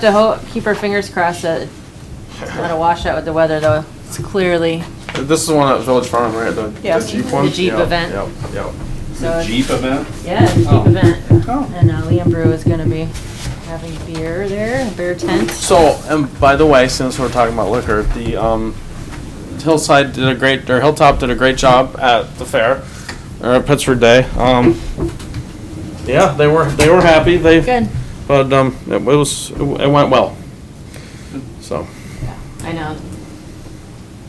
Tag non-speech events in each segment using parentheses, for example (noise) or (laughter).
To ho- keep our fingers crossed that it's not a washout with the weather, though. It's clearly, This is one at Village Farm, right? The, Yeah. the Jeep one? The Jeep Yeah, event. Yep, yep. so, it's- Jeep event? yeah, it's a Jeep event. Oh. And uh, Liam Brew is gonna be having beer there, a beer tent. So, and by the way, since we're talking about liquor, the um, Hillside did a great, or Hilltop did a great job at the fair, or at Pittsford Day. Um, yeah, they were they were happy. They Good. but um, it, was it went well. So I know,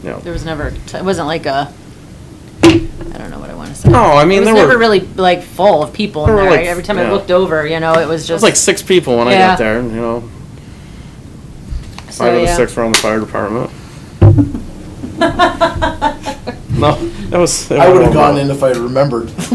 yeah. there was never, t- it wasn't like a, I don't know what I wanna say. No, Oh, I mean, It was there never were- really like full of people in There there. were, like, Every time I yeah. looked over, you know, it was It was just. like six people when I Yeah. got there. You know, so, five of the yeah. six were on the fire department. No, that was. it I went would have well. gone in if I remembered. (laughs)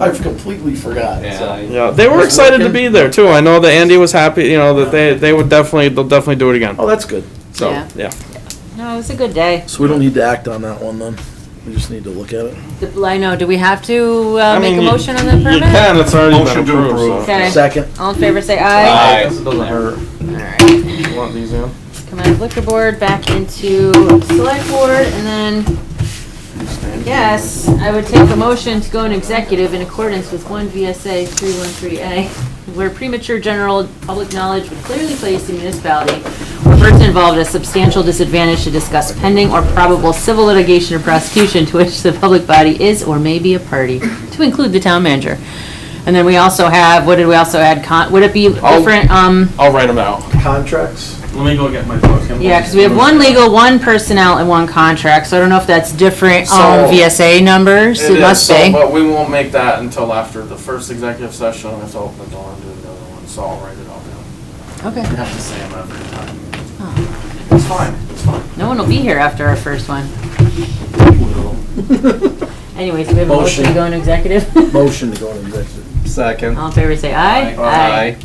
I've completely forgot. so. Yeah, they were Was excited to working. be there too. I know that Andy was happy. You know that they they would definitely they'll definitely do it again. Oh, that's good. So Yeah. Uh, yeah, (laughs) No, it was a good day. So we don't need to act on that one then. We just need to look at it. The- I know, do we have to uh, I make a mean, you- motion on that permit? You can. It's already Motion been to approved. approve. So. Okay. Second. All in favor, say aye. Aye. This doesn't hurt. All right. You want these in? Come out of liquor board, back into select board, and then, yes, I would take a motion to go in executive in accordance with one VSA three one three A, where premature general public knowledge would clearly place the municipality or person involved at a substantial disadvantage to discuss pending or probable civil litigation or prosecution to which the public body is or may be a party, to include the town manager. And then we also have, what did we also add, con, would it be I'll- different, um? I'll write them out. Contracts. Let me go get my book. Yeah, because we have one legal, one personnel, and one contract, so I don't know if that's different on So- VSA numbers, it must be. but we won't make that until after the first executive session. Let's open the door and do another one. So I'll write it all down. You Okay. have to say them every time. Oh. It's fine. It's fine. No one will be here after our first (laughs) one. Anyways, we have a motion to (laughs) Motion. go into executive. Motion to go into executive. Second. All in favor, say aye.